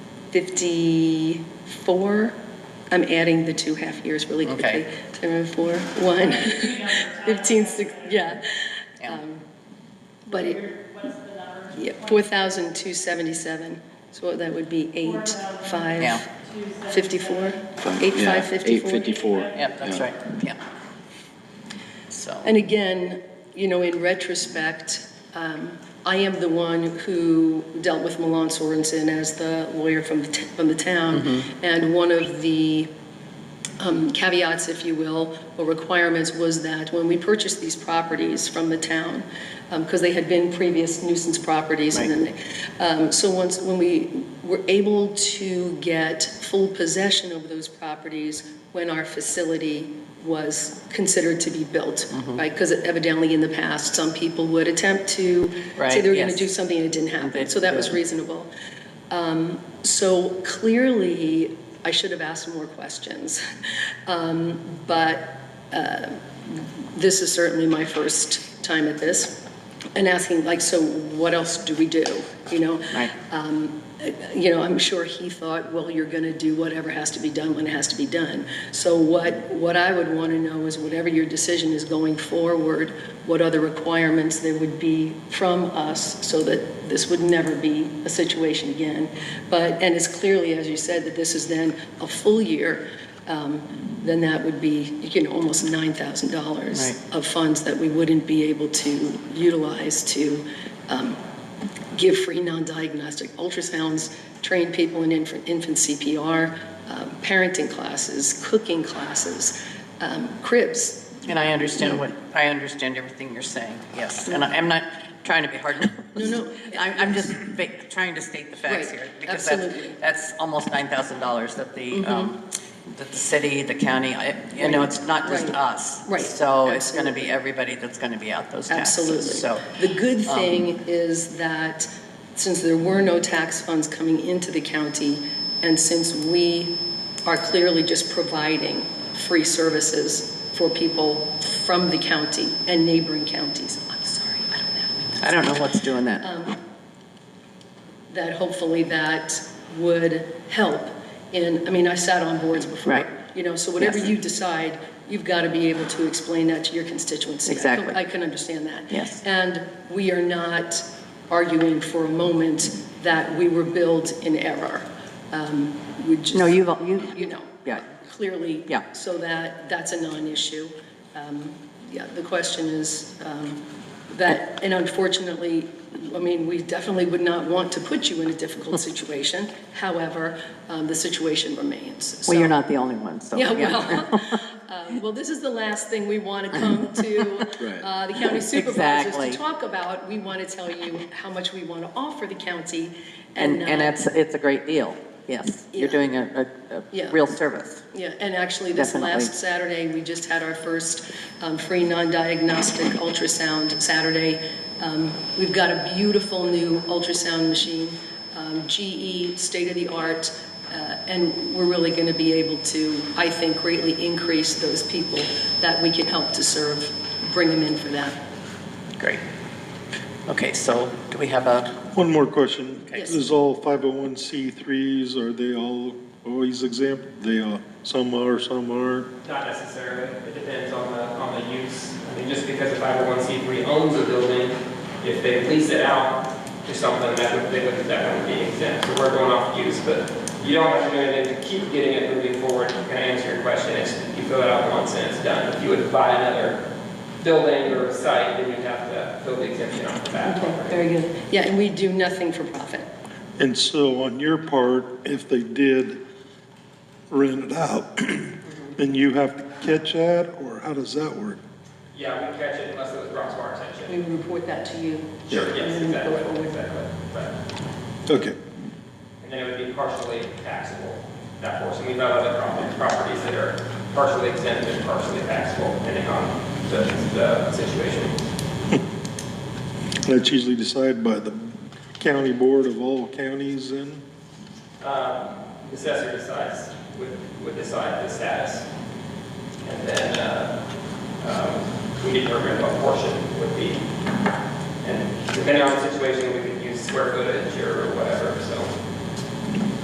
54, I'm adding the two half years really quickly. Okay. Ten, four, one, 15, six, yeah. Yeah. Um, But it, yeah, 4,277, so that would be 8, 5, Yeah. 54, 8, 5, 54. 854. Yep, that's right, yeah. So, And again, you know, in retrospect, um, I am the one who dealt with Milan Sorensen as the lawyer from the, t- from the town. Mm-hmm. And one of the um, caveats, if you will, or requirements was that when we purchased these properties from the town, because they had been previous nuisance properties, and then, they- um, so once, when we were able to get full possession of those properties when our facility was considered to be built, Mm-hmm. right? Because evidently in the past, some people would attempt to say Right, they were going to yes. do something and it didn't happen, They- so that was yeah. reasonable. Um, So clearly, I should have asked more questions, Um, but uh, this is certainly my first time at this, and asking, like, so what else do we do, you know? right, you know, I'm sure he thought, well, you're going to do whatever has to be done when it has to be done. So what, what I would want to know is whatever your decision is going forward, what other requirements there would be from us so that this would never be a situation again. But, and it's clearly, as you said, that this is then a full year, um, then that would be, you know, almost $9,000 Right. of funds that we wouldn't be able to utilize to give free non-diagnostic ultrasounds, train people in infant, infant CPR, um, parenting classes, cooking classes, um, cribs. and I understand what, I understand everything you're saying, yes. And I- I'm not trying to be hard. No, no. I'm, I'm just ba- trying to state the facts Right, here. because that's- absolutely. Mm-hmm. That's almost $9,000 that the, um, that the city, the county, I- you know, it's not just Right. us. Right, So it's going to be everybody that's going to be out those taxes. Absolutely. So, The good thing is that since there were no tax funds coming into the county, and since we are clearly just providing free services for people from the county and neighboring counties, I'm sorry, I don't have my I don't know what's doing that. Um, that hopefully that would help. And, I mean, I sat on boards before. Right. You know, so whatever Yes. you decide, you've got to be able to explain that to your constituency. I can- Exactly. I can understand that. Yes. And we are not arguing for a moment that we were billed in error. Um, We just. No, you've, you, You know. Yeah. Clearly. Yeah. So that, that's a non-issue. Um, Yeah, the question is um, that, and unfortunately, I mean, we definitely would not want to put you in a difficult situation. However, um, the situation remains. well, So- you're not the only one, so. Yeah, well, um, well, this is the last thing we want to come to Right. uh, the county supervisors Exactly. to talk about. We want to tell you how much we want to offer the county. And, and uh, it's, it's a great deal, yes. You're Yeah. doing a, a, Yeah. a real service. Yeah, and actually, this Definitely. last Saturday, we just had our first um, free non-diagnostic ultrasound Saturday. Um, We've got a beautiful new ultrasound machine, um, GE, state-of-the-art, uh, and we're really going to be able to, I think, greatly increase those people that we can help to serve, bring them in for that. Great. Okay, so do we have a, One more question. Yes. Is all 501c3s, are they all always exempt? They are, some are, some aren't. Not necessarily. It depends on the, on the use. I mean, just because a 501c3 owns a building, if they lease it out to someone, that would, they would, that would be exempt. So we're going off use, but you don't have to do anything to keep getting it moving forward. Can I answer your question? It's, you fill it out once and it's done. If you would buy another building or site, then you'd have to fill the exemption off the Okay, bat. very good. Yeah, and we do nothing for profit. And so on your part, if they did rent it out, then you have to catch that, or how does that work? Yeah, we catch it unless it was brought to our We attention. report that to you. Sure, yes, And then we go exactly, forward. exactly. But- Okay. And then it would be partially taxable, that portion. We've got other prop- properties that are partially exempt and partially taxable, depending on the, the situation. That's usually decided by the county board of all counties and, Um, The assessor decides, would, would decide the status. And then, uh, um, we determine what portion would be. And depending on the situation, we could use square footage or whatever,